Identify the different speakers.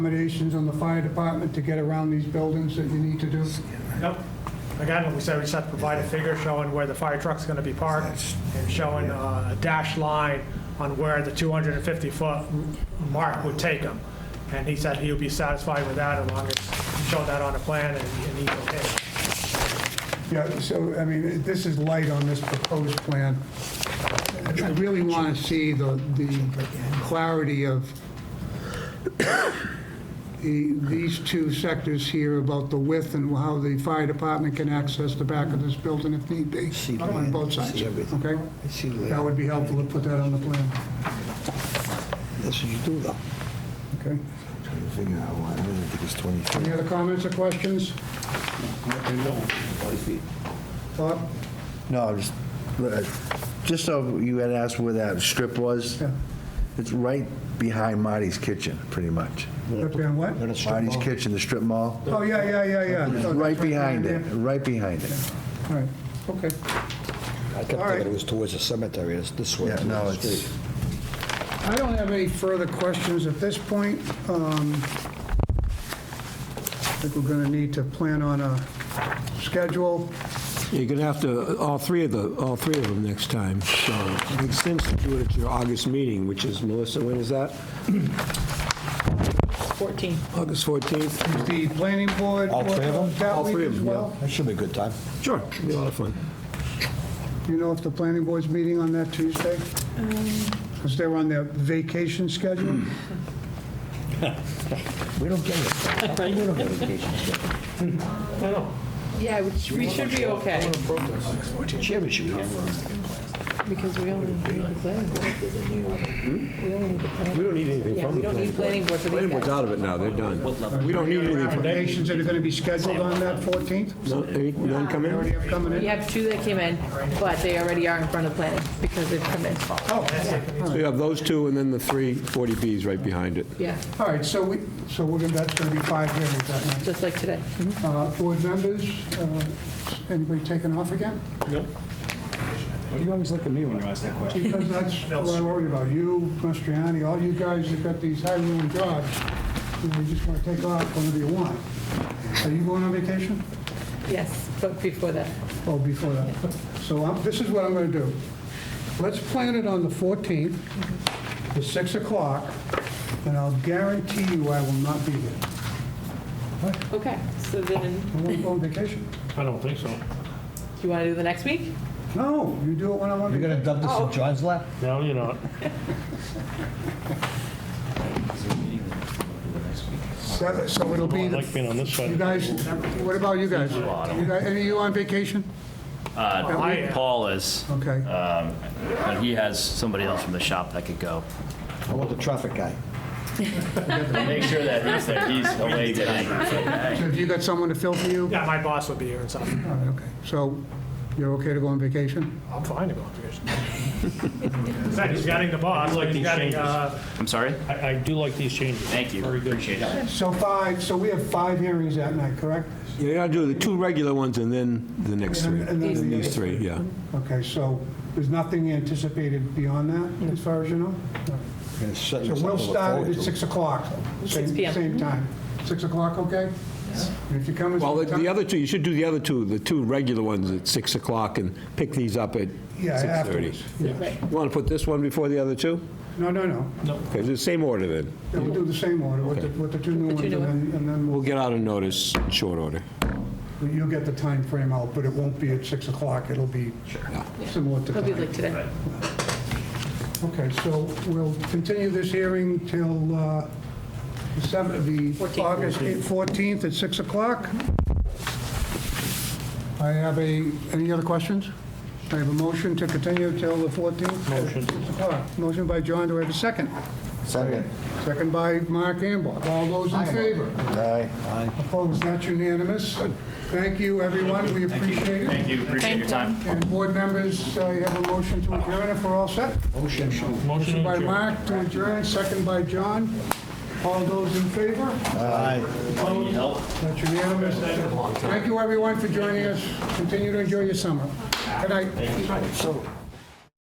Speaker 1: accommodations on the fire department to get around these buildings that you need to do?
Speaker 2: Nope. Again, we said we just have to provide a figure showing where the fire truck's going to be parked and showing uh, a dashed line on where the 250-foot mark would take him. And he said he would be satisfied with that as long as he showed that on a plan and and he's okay.
Speaker 1: Yeah, so, I mean, this is light on this proposed plan. I really want to see the, the clarity of the, these two sectors here about the width and how the fire department can access the back of this building if need be,
Speaker 3: See
Speaker 1: on
Speaker 3: land,
Speaker 1: both sides,
Speaker 3: see everything.
Speaker 1: okay?
Speaker 3: I see the
Speaker 1: That
Speaker 3: layout.
Speaker 1: would be helpful to put that on the plan,
Speaker 3: That's what you do, though.
Speaker 1: okay?
Speaker 3: Trying to figure out why, I don't think it's 23.
Speaker 1: Any other comments or questions? Bob?
Speaker 3: No, just, uh, just so you had asked where that strip was,
Speaker 1: Yeah.
Speaker 3: it's right behind Marty's Kitchen, pretty much.
Speaker 1: Up there, what?
Speaker 3: Marty's Kitchen, the strip mall,
Speaker 1: Oh, yeah, yeah, yeah, yeah. Oh,
Speaker 3: It's
Speaker 1: that's
Speaker 3: right
Speaker 1: there
Speaker 3: behind
Speaker 1: in
Speaker 3: it,
Speaker 1: there.
Speaker 3: right behind it.
Speaker 1: All right, okay.
Speaker 4: I
Speaker 1: All
Speaker 4: kept
Speaker 1: right.
Speaker 4: thinking it was towards the cemetery, it's this way.
Speaker 3: Yeah, no,
Speaker 4: towards the
Speaker 3: it's,
Speaker 4: street.
Speaker 1: I don't have any further questions at this point. Um, I think we're going to need to plan on a schedule.
Speaker 5: You're going to have to, all three of the, all three of them next time, so it makes sense to do it at your August meeting, which is, Melissa, when is that?
Speaker 6: 14.
Speaker 5: August 14th?
Speaker 1: Is the planning board... uh,
Speaker 4: All three of them?
Speaker 1: That
Speaker 5: All
Speaker 1: week
Speaker 5: three of
Speaker 1: as
Speaker 5: them, yeah.
Speaker 1: well?
Speaker 4: That should be a good time.
Speaker 5: Sure. Should be a lot of fun.
Speaker 1: Do you know if the planning board's meeting on that Tuesday? Because they're on their vacation schedule?
Speaker 4: We don't get it. How come We don't get vacations.
Speaker 6: Yeah, we sh- we should be okay,
Speaker 4: Chairman should be here.
Speaker 6: because we only need the planning board. We only need the planning.
Speaker 5: We don't need anything
Speaker 6: Yeah,
Speaker 5: from
Speaker 6: we
Speaker 5: the
Speaker 6: don't need
Speaker 5: planning board.
Speaker 6: planning board for
Speaker 5: Planning
Speaker 6: these
Speaker 5: board's
Speaker 6: guys.
Speaker 5: out of it now, they're done. We don't need anything from,
Speaker 1: Vacations that are going to be scheduled on that 14th?
Speaker 5: no, any- none come
Speaker 1: Already
Speaker 5: in?
Speaker 1: have coming
Speaker 6: We
Speaker 1: in?
Speaker 6: have two that came in, but they already are in front of planning because they've come in.
Speaker 5: Oh. So you have those two and then the three 40Bs right behind it.
Speaker 6: Yeah,
Speaker 1: All right, so we, so we're going, to that's going to be five hearings that night.
Speaker 6: just like today.
Speaker 5: Mm-hmm.
Speaker 1: Uh, Board members, uh, anybody taking off again?
Speaker 7: Why do you always look at me when you ask that question?
Speaker 1: Because that's what I worry about. You, Mastriani, all you guys that got these high-rolling jobs, you know, you just want to take off whenever you want. Are you going on vacation?
Speaker 6: Yes, but before that,
Speaker 1: Oh, before that. So I'm- this is what I'm going to do. Let's plan it on the 14th, the 6 o'clock, and I'll guarantee you I will not be there.
Speaker 6: okay, so then,
Speaker 1: I won't go on vacation.
Speaker 6: you want to do the next week?
Speaker 1: No, you do it when I'm on
Speaker 4: You're
Speaker 1: vacation.
Speaker 4: gonna dump this in John's lap?
Speaker 8: No, you're not.
Speaker 1: So- So it'll
Speaker 8: Oh, I
Speaker 1: be, the-
Speaker 8: like being on this side.
Speaker 1: you guys, what about you guys? You guys- Any of you on vacation?
Speaker 2: I-
Speaker 9: Uh,
Speaker 8: uh,
Speaker 9: Paul is,
Speaker 1: Okay.
Speaker 9: but he has somebody else from the shop that could go.
Speaker 4: I want the traffic guy.
Speaker 9: Make sure that he's, that he's away tonight.
Speaker 1: So have you got someone to fill for you?
Speaker 2: Yeah, my boss would be here and stuff.
Speaker 1: All right, okay. So you're okay to go on vacation?
Speaker 2: I'm fine to go on vacation. In fact, he's getting the boss,
Speaker 8: like
Speaker 2: he's
Speaker 8: these
Speaker 2: getting,
Speaker 8: changes.
Speaker 2: uh,
Speaker 9: I'm sorry?
Speaker 8: I, I do like these changes.
Speaker 9: Thank you.
Speaker 8: Very good.
Speaker 9: Appreciate it.
Speaker 1: So five, so we have five hearings that night, correct?
Speaker 5: You got to do the two regular ones and then the next three.
Speaker 1: And- and then
Speaker 5: Then
Speaker 1: the-
Speaker 5: These three, yeah.
Speaker 1: Okay, so there's nothing anticipated beyond that, as far as you know?
Speaker 4: Gonna set
Speaker 1: So
Speaker 4: something
Speaker 1: we'll
Speaker 4: to look
Speaker 1: start
Speaker 4: forward
Speaker 1: it at
Speaker 4: to.
Speaker 1: 6 o'clock. same-
Speaker 6: 6 p.m.
Speaker 1: Same time.
Speaker 4: Mm-hmm.
Speaker 1: 6 o'clock, okay? And If you come... at
Speaker 5: Well, the-
Speaker 1: some time-
Speaker 5: the other two, you should do the other two, the two regular ones at 6 o'clock and pick these up at
Speaker 1: Yeah,
Speaker 5: 6:30.
Speaker 1: afterwards.
Speaker 6: Right.
Speaker 5: Want to put this one before the other two?
Speaker 1: No, no, no.
Speaker 5: Okay, the same order then.
Speaker 1: Yeah, We'll do the same order with the
Speaker 5: Okay.
Speaker 1: with the two new
Speaker 6: The two
Speaker 1: ones,
Speaker 6: new
Speaker 1: and then- and then
Speaker 5: We'll get out a notice in short order.
Speaker 1: we'll- you'll get the time frame out, but it won't be at 6 o'clock. It'll be similar to
Speaker 6: It'll
Speaker 1: tonight.
Speaker 6: be like today.
Speaker 1: Okay, so we'll continue this hearing till uh, the seven- the
Speaker 6: 14th.
Speaker 1: August 14th at 6 o'clock. I have a, any other questions? I have a motion to continue till the 14th? Motion. Motion by John, do I have a second?
Speaker 3: second.
Speaker 1: Second by Mark Ambach. All those in favor?
Speaker 3: Aye.
Speaker 1: Opposed, that's unanimous. Thank you, everyone, we appreciate it.
Speaker 9: Thank you, appreciate your time.
Speaker 1: And board members, uh, you have a motion to adjourn if we're all set?
Speaker 8: Motion
Speaker 1: Motion
Speaker 8: to
Speaker 1: by
Speaker 8: adjourn.
Speaker 1: Mark to adjourn, second by John. All those in favor?
Speaker 3: Aye.
Speaker 9: Need help?
Speaker 1: That's unanimous. Thank you, everyone, for joining us. Continue to enjoy your summer. Good night.
Speaker 3: So,